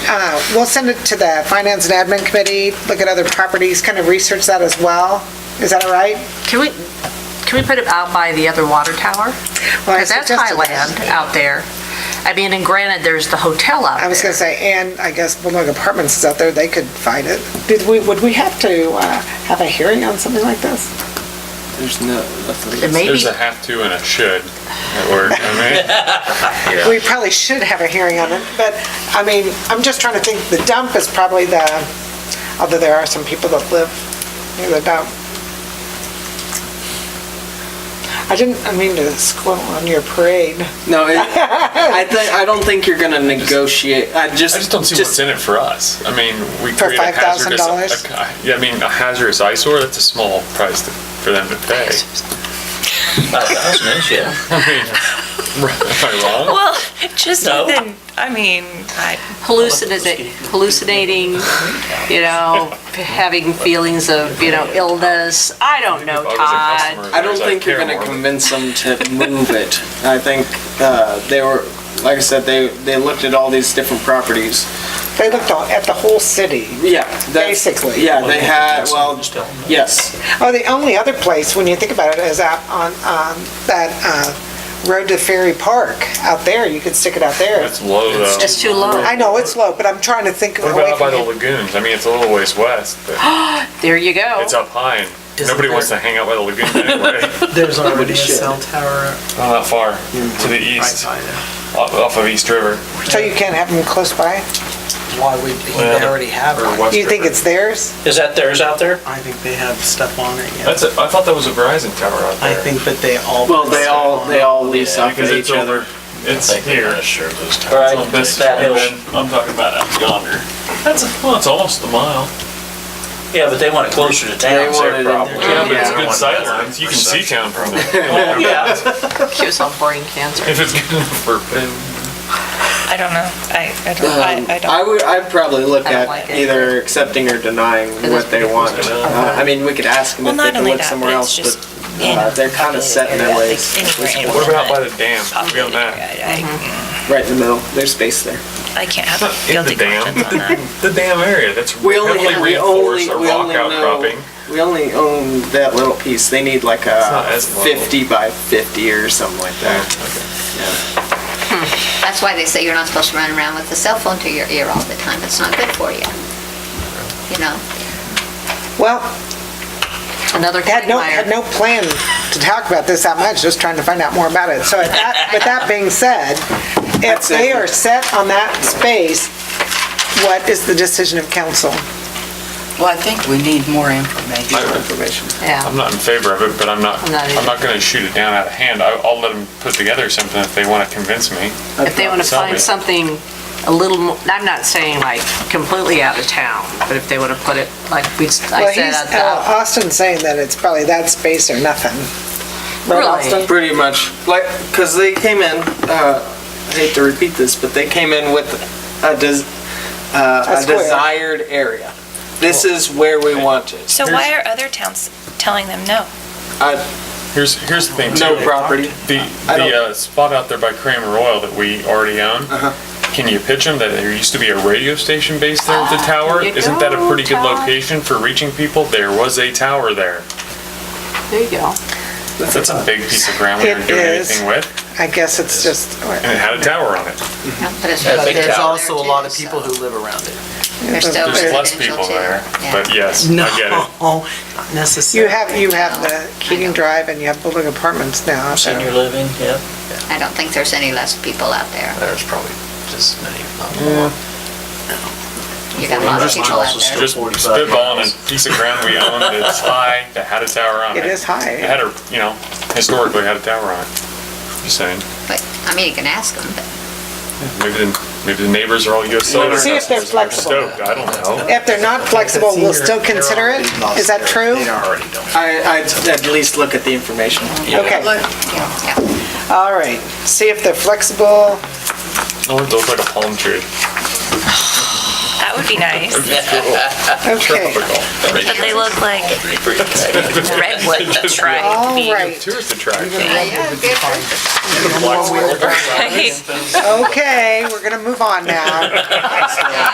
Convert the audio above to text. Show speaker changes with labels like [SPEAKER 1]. [SPEAKER 1] uh, we'll send it to the Finance and Admin Committee, look at other properties, kind of research that as well. Is that all right?
[SPEAKER 2] Can we, can we put it out by the other water tower?
[SPEAKER 1] Well, I
[SPEAKER 2] Because that's
[SPEAKER 1] suggested that.
[SPEAKER 2] Highland out there. I mean, and granted, there's the hotel out
[SPEAKER 1] I was
[SPEAKER 2] there.
[SPEAKER 1] gonna say, and I guess Bulldog Apartments is out there, they could find it. Did we, would we have to uh, have a hearing on something like this?
[SPEAKER 3] There's no, nothing.
[SPEAKER 2] And maybe,
[SPEAKER 4] There's a have to and a should at work, I mean.
[SPEAKER 1] We probably should have a hearing on it, but, I mean, I'm just trying to think, the dump is probably the, although there are some people that live near the dump. I didn't, I mean to squint on your parade.
[SPEAKER 3] No, it, I think I don't think you're gonna negotiate. I just,
[SPEAKER 4] I just don't see what's in it for us. I mean, we
[SPEAKER 1] For
[SPEAKER 4] create a hazardous.
[SPEAKER 1] $5,000?
[SPEAKER 4] a- Yeah, I mean, a hazardous eyesore, that's a small price to- for them to pay.
[SPEAKER 5] Five thousand is, yeah.
[SPEAKER 4] Am I wrong?
[SPEAKER 6] Well, just
[SPEAKER 5] No.
[SPEAKER 6] within, I mean, I,
[SPEAKER 2] hallucinati- hallucinating, you know, having feelings of, you know, illness. I don't know,
[SPEAKER 4] If I was a
[SPEAKER 2] Todd.
[SPEAKER 4] customer,
[SPEAKER 3] I don't
[SPEAKER 4] there's,
[SPEAKER 3] think you're
[SPEAKER 4] care
[SPEAKER 3] gonna
[SPEAKER 4] more.
[SPEAKER 3] convince them to move it. I think uh, they were, like I said, they they looked at all these different properties.
[SPEAKER 1] They looked all- at the whole city.
[SPEAKER 3] Yeah, that's-
[SPEAKER 1] Basically.
[SPEAKER 3] Yeah, they had. Well,
[SPEAKER 5] Just tell them.
[SPEAKER 3] yes.
[SPEAKER 1] Oh, the only other place, when you think about it, is out on, on that uh, road to Ferry Park. Out there, you could stick it out there.
[SPEAKER 4] That's low though.
[SPEAKER 2] It's too low.
[SPEAKER 1] I know it's low, but I'm trying to think
[SPEAKER 4] What
[SPEAKER 1] away
[SPEAKER 4] about by
[SPEAKER 1] from
[SPEAKER 4] the
[SPEAKER 1] it.
[SPEAKER 4] lagoons? I mean, it's a little ways west, but
[SPEAKER 2] There you go.
[SPEAKER 4] it's up high and
[SPEAKER 7] Does
[SPEAKER 4] nobody
[SPEAKER 7] it
[SPEAKER 4] wants to hang out by the lagoon anyway.
[SPEAKER 7] There's already
[SPEAKER 3] Nobody
[SPEAKER 7] a
[SPEAKER 3] should.
[SPEAKER 7] cell tower
[SPEAKER 4] Not that far, to the
[SPEAKER 7] right
[SPEAKER 4] east,
[SPEAKER 7] by there.
[SPEAKER 4] off off of East River.
[SPEAKER 1] So you can't have them close by?
[SPEAKER 7] Why would, he
[SPEAKER 4] Well,
[SPEAKER 7] already have
[SPEAKER 4] or
[SPEAKER 7] one.
[SPEAKER 4] West
[SPEAKER 1] You think
[SPEAKER 4] River.
[SPEAKER 1] it's theirs?
[SPEAKER 5] Is that theirs out there?
[SPEAKER 7] I think they have stuff on it, yeah.
[SPEAKER 4] That's, a- I thought that was a Verizon tower out
[SPEAKER 7] I
[SPEAKER 4] there.
[SPEAKER 7] think that they all.
[SPEAKER 3] Well, they all they all lease off
[SPEAKER 4] Because
[SPEAKER 3] of
[SPEAKER 4] it's
[SPEAKER 3] each other.
[SPEAKER 4] over, it's here.
[SPEAKER 5] Sure, those
[SPEAKER 4] All
[SPEAKER 5] towers.
[SPEAKER 4] right, this,
[SPEAKER 5] That
[SPEAKER 4] and
[SPEAKER 5] hill.
[SPEAKER 4] then I'm talking about out yonder. That's, a- well, it's almost a mile.
[SPEAKER 5] Yeah, but they want it closer to town, it's
[SPEAKER 3] wanted it-
[SPEAKER 5] their problem.
[SPEAKER 4] Yeah, but it's
[SPEAKER 3] Yeah.
[SPEAKER 4] good sight lines. You can see town from there.
[SPEAKER 5] Yeah.
[SPEAKER 2] Cures all brain cancer.
[SPEAKER 4] If it's good enough for,
[SPEAKER 6] I don't know. I, I
[SPEAKER 3] Um,
[SPEAKER 6] don't, I, I
[SPEAKER 3] I
[SPEAKER 6] don't.
[SPEAKER 3] would, I'd probably look
[SPEAKER 2] I don't
[SPEAKER 3] at
[SPEAKER 2] like it.
[SPEAKER 3] either accepting or denying
[SPEAKER 2] that's
[SPEAKER 3] what they want. Uh, I mean, we could ask them
[SPEAKER 6] Well,
[SPEAKER 3] if they
[SPEAKER 6] not
[SPEAKER 3] can
[SPEAKER 6] only
[SPEAKER 3] look
[SPEAKER 6] that,
[SPEAKER 3] somewhere
[SPEAKER 6] but it's
[SPEAKER 3] else,
[SPEAKER 6] just,
[SPEAKER 3] but
[SPEAKER 6] you
[SPEAKER 3] uh,
[SPEAKER 6] know.
[SPEAKER 3] they're kind of set in their ways,
[SPEAKER 4] what about by the dam? We'll be on that.
[SPEAKER 6] I
[SPEAKER 3] right in the middle, there's space there.
[SPEAKER 6] I can't have
[SPEAKER 4] Not
[SPEAKER 6] a
[SPEAKER 4] in the
[SPEAKER 6] guilty
[SPEAKER 4] dam,
[SPEAKER 6] conscience on that.
[SPEAKER 4] the dam area, that's
[SPEAKER 3] We only
[SPEAKER 4] heavily
[SPEAKER 3] have- we only-
[SPEAKER 4] reinforced or
[SPEAKER 3] we
[SPEAKER 4] rock
[SPEAKER 3] only know-
[SPEAKER 4] outcropping.
[SPEAKER 3] We only own that little piece, they need like
[SPEAKER 4] not
[SPEAKER 3] a
[SPEAKER 4] as level.
[SPEAKER 3] fifty by fifty or something like that.
[SPEAKER 8] That's why they say you're not supposed to run around with a cell phone to your ear all the time. It's not good for you. You know?
[SPEAKER 1] Well,
[SPEAKER 2] Another
[SPEAKER 1] had no, had no
[SPEAKER 2] quagmire.
[SPEAKER 1] plan to talk about this that much, just trying to find out more about it. So at that- with that being said, if
[SPEAKER 3] That's it.
[SPEAKER 1] they are set on that space, what is the decision of council?
[SPEAKER 9] Well, I think we need more information.
[SPEAKER 3] Information.
[SPEAKER 2] Yeah.
[SPEAKER 4] I'm not in favor of it, but I'm not,
[SPEAKER 2] I'm not
[SPEAKER 4] I'm not gonna shoot it down out of hand. I- I'll let them put together something if they wanna convince me.
[SPEAKER 2] If they want to
[SPEAKER 4] Something.
[SPEAKER 2] find something a little, mo- I'm not saying like completely out of town, but if they want to put it, like we, I
[SPEAKER 1] Well,
[SPEAKER 2] said,
[SPEAKER 1] he's,
[SPEAKER 2] at the-
[SPEAKER 1] uh, Austin's saying that it's probably that space or nothing. Right,
[SPEAKER 2] Really?
[SPEAKER 1] Austin?
[SPEAKER 3] Pretty much, like, cause they came in, uh, I hate to repeat this, but they came in with a des-
[SPEAKER 1] A
[SPEAKER 3] uh, a
[SPEAKER 1] square.
[SPEAKER 3] desired area. This is where we want it.
[SPEAKER 6] So why are other towns telling them no?
[SPEAKER 4] Here's, here's the thing too.
[SPEAKER 3] No property.
[SPEAKER 4] The,
[SPEAKER 3] I
[SPEAKER 4] the
[SPEAKER 3] don't- Uh-huh.
[SPEAKER 4] uh, spot out there by Kramer Oil that we already own, can you pitch them that there used to be a radio station based there with the tower?
[SPEAKER 2] you
[SPEAKER 4] Isn't that a
[SPEAKER 2] go,
[SPEAKER 4] pretty good
[SPEAKER 2] Todd.
[SPEAKER 4] location for reaching people? There was a tower there.
[SPEAKER 2] there you go.
[SPEAKER 4] That's a big piece of ground we
[SPEAKER 1] It
[SPEAKER 4] didn't do
[SPEAKER 1] is.
[SPEAKER 4] anything with,
[SPEAKER 1] I guess it's just,
[SPEAKER 4] and it had a tower on it.
[SPEAKER 8] But it's
[SPEAKER 5] Yeah,
[SPEAKER 7] But
[SPEAKER 5] big
[SPEAKER 7] there's
[SPEAKER 5] tower.
[SPEAKER 7] also a lot of people who live around it.
[SPEAKER 8] There's
[SPEAKER 1] Oh,
[SPEAKER 8] still
[SPEAKER 4] There's less
[SPEAKER 8] residential
[SPEAKER 4] people
[SPEAKER 8] too.
[SPEAKER 4] there,
[SPEAKER 8] Yeah.
[SPEAKER 4] but yes,
[SPEAKER 7] No,
[SPEAKER 4] I get it.
[SPEAKER 9] Oh,
[SPEAKER 7] not
[SPEAKER 1] you
[SPEAKER 7] necessarily.
[SPEAKER 1] have, you have the Keating Drive and you have Bulldog Apartments now. so-
[SPEAKER 5] Senior living, yeah.
[SPEAKER 8] I don't think there's any less people out there.
[SPEAKER 5] There's probably just as many, if not more.
[SPEAKER 8] You got a lot of
[SPEAKER 5] Just
[SPEAKER 8] people out
[SPEAKER 5] miles is
[SPEAKER 8] there.
[SPEAKER 5] still
[SPEAKER 4] Just
[SPEAKER 5] 45
[SPEAKER 4] spitballing
[SPEAKER 5] miles.
[SPEAKER 4] a piece of ground we own that's high, that had a tower on it.
[SPEAKER 1] It is high.
[SPEAKER 4] It had a, you know, historically had a tower on it. Just saying,
[SPEAKER 8] But, I mean, you can ask them, but
[SPEAKER 4] maybe the, maybe the neighbors are all US Solar
[SPEAKER 1] See if they're
[SPEAKER 4] customers and
[SPEAKER 1] flexible.
[SPEAKER 4] they're stoked, I don't know.
[SPEAKER 1] If they're not flexible, we'll still consider it? Is that true?
[SPEAKER 7] They already don't.
[SPEAKER 3] I, I'd at least look at the information.
[SPEAKER 1] Okay,
[SPEAKER 8] yeah,
[SPEAKER 1] all right. See if they're flexible.
[SPEAKER 4] I want those like a palm tree.
[SPEAKER 6] That would be nice,
[SPEAKER 1] Okay,
[SPEAKER 6] but they look like redwood, that's right.
[SPEAKER 1] all right.
[SPEAKER 4] Tourist attraction.
[SPEAKER 8] yeah. Yeah, good for you.
[SPEAKER 1] Okay, we're gonna move on now.